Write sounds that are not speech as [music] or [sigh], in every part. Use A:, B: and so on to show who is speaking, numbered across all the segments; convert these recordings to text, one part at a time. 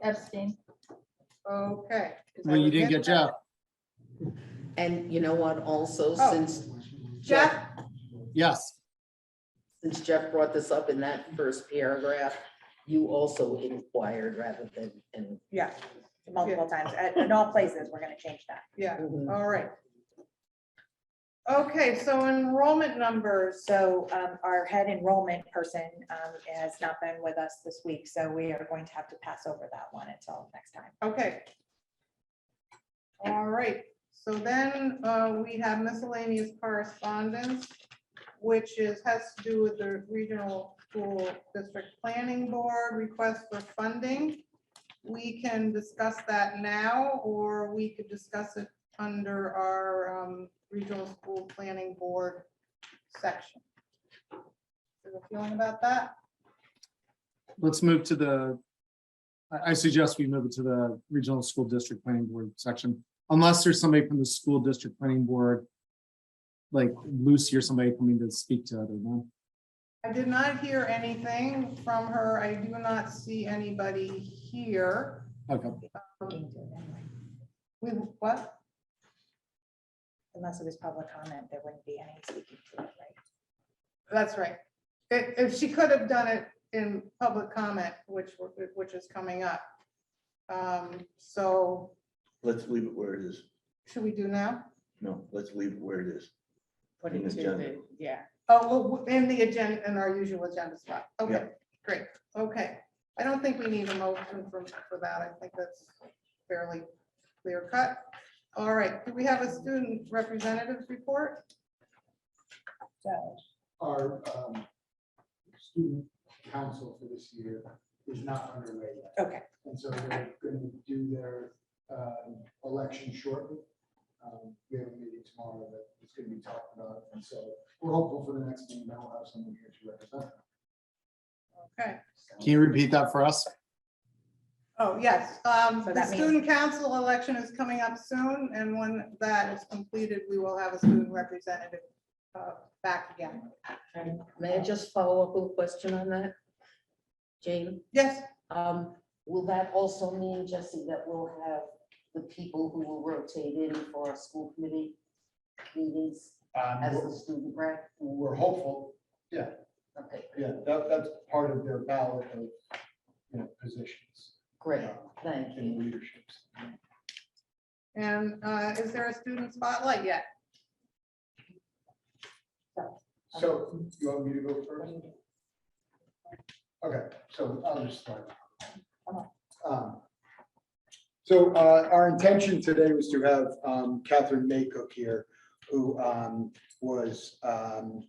A: Epstein.
B: Okay. 'cause I
C: Well, you
B: would
C: didn't get Jeff.
D: And you know what, also,
B: Oh.
D: since
B: Jeff,
D: Jeff,
C: Yes,
D: since Jeff brought this up in that first paragraph, you also inquired rather than, and.
E: Yeah, multiple times, at, in all places, we're gonna change that.
B: yeah, all right. Okay, so enrollment numbers,
E: So, um, our head enrollment person, um, has not been with us this week, so we are going to have to pass over that one until next time.
B: okay. All right, so then uh, we have miscellaneous correspondence, which is, has to do with the Regional School District Planning Board request for funding. We can discuss that now, or we could discuss it under our um, Regional School Planning Board section. Is there a feeling about that?
C: let's move to the, I, I suggest we move it to the Regional School District Planning Board section, unless there's somebody from the School District Planning Board, like Lucy or somebody coming to speak to other one.
B: I did not hear anything from her. I do not see anybody here.
C: Okay,
E: Being due anyway.
B: We, what?
E: Unless it was public comment, there wouldn't be any speaking to it, right?
B: That's right. If, if she could have done it in public comment, which, we're- which is coming up. Um, so
F: Let's leave it where it is.
B: should we do now?
F: No, let's leave it where it is.
D: Put
F: In
D: it
F: the
D: to
F: agenda.
D: the, yeah.
B: Oh, well, in the agenda, in our usual agenda spot. Okay,
F: Yeah.
B: great. Okay. I don't think we need a motion for, for that. I think that's fairly clear cut. All right. Do we have a student representatives report?
E: So,
G: our um, student council for this year is not underway yet.
E: okay,
G: And so they're going to do their um, election shortly. Um, We have a meeting tomorrow that is going to be talked about. And so we're hopeful for the next meeting that we'll have someone here to represent.
B: Okay,
C: can you repeat that for us?
B: oh, yes, um,
E: So
B: the
E: that means-
B: student council election is coming up soon, and when that is completed, we will have a student representative uh, back again.
D: And May I just follow up with a question on that? Jane,
B: Yes,
D: um, will that also mean, Jesse, that we'll have the people who will rotate in for our school committee meetings as the
G: Um,
D: student rep?
G: We're we're hopeful,
D: Okay,
G: yeah, that, that's part of their ballot of, you know, positions
D: great, thank
G: and
D: you.
G: leaderships.
B: and uh, is there a student spotlight yet?
G: So you want me to go first? Okay, so I'll just start. Um, So uh, our intention today was to have um, Catherine Maycook here, who um, was, um,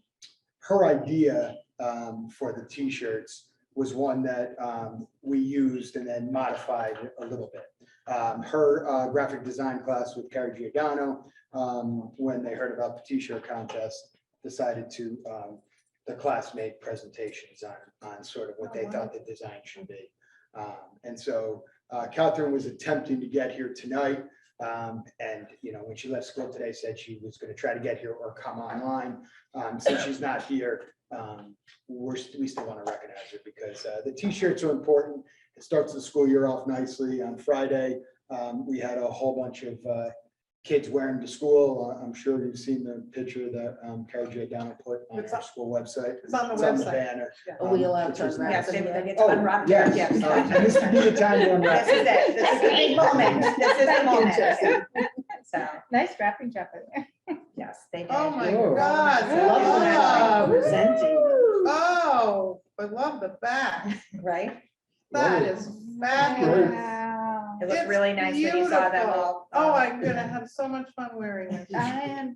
G: her idea um, for the T-shirts was one that um, we used and then modified a little bit. Um, Her uh, graphic design class with Carrie Giordano, um, when they heard about the T-shirt contest, decided to, um, the class made presentations on, on sort of what they thought the design should be. Um, and so, uh, Catherine was attempting to get here tonight. Um, and, you know, when she left school today, said she was gonna try to get here or come online. Um, since she's not here, um, we're, st- we still wanna recognize her because, uh, the T-shirts are important. It starts the school year off nicely. On Friday, um, we had a whole bunch of, uh, kids wearing to school. I- I'm sure you've seen the picture that um, Carrie J. Downer put on
B: It's
G: our
B: on-
G: school website.
B: it's on the website.
G: banner.
D: Are we
G: um,
D: allowed
G: which
D: to
G: was
D: unwrap
E: yes,
D: them
E: they
D: yet?
E: they get to
G: Oh,
E: unwrap.
G: yes.
E: yes.
G: uh, and This would be the time
B: [laughs]
G: to unwrap.
E: This is it, this is the big moment, this is the moment. So,
A: Nice wrapping job.
E: yes, they did.
B: Oh, my
C: Whoa.
B: God.
E: Love when I
B: wow.
E: like presenting,
B: Oh, I love the back.
E: right?
B: That
G: Whoa.
B: is fabulous.
A: Wow.
E: It
B: It's
E: looked really nice when you saw that
B: beautiful.
E: little.
B: Oh, I'm gonna have so much fun wearing this.
A: I am.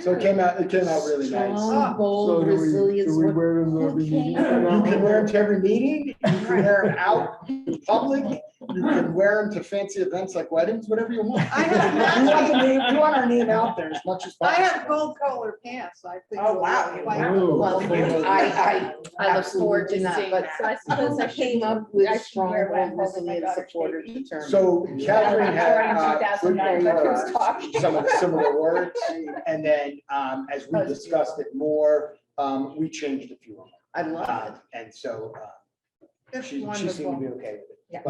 G: So it came out, it came out really nice.
D: Strong, bold, resilience. what-
G: [laughs] You can wear them to every meeting, you can wear them out in public, you can wear them to fancy events like weddings, whatever you want.
B: I have-
G: We want the name- we want our name out there as much as
B: I
G: possible.
B: have gold colored pants, I think.
E: Oh, wow.
B: Like-
D: Well,
G: [laughs]
D: I, I, I look forward to not, but
A: So I
D: suppose
A: suppose
D: [laughs] I
A: I
D: came
A: should-
D: up with
A: I should
D: strong,
A: wear one
D: bold,
A: over my
D: resilient,
A: daughter's
D: supportive
A: baby.
D: determined.
G: So Catherine had.
A: Around
G: uh,
A: 2009,
G: good
A: but who's
G: memorized
A: talking?
G: Some of the similar words, and then um, as we
D: That was
G: discussed it more, um, we changed a few of them.
D: I love it.
G: Um, And so uh,
B: It's
G: she she seemed to be
B: wonderful.
G: okay with it.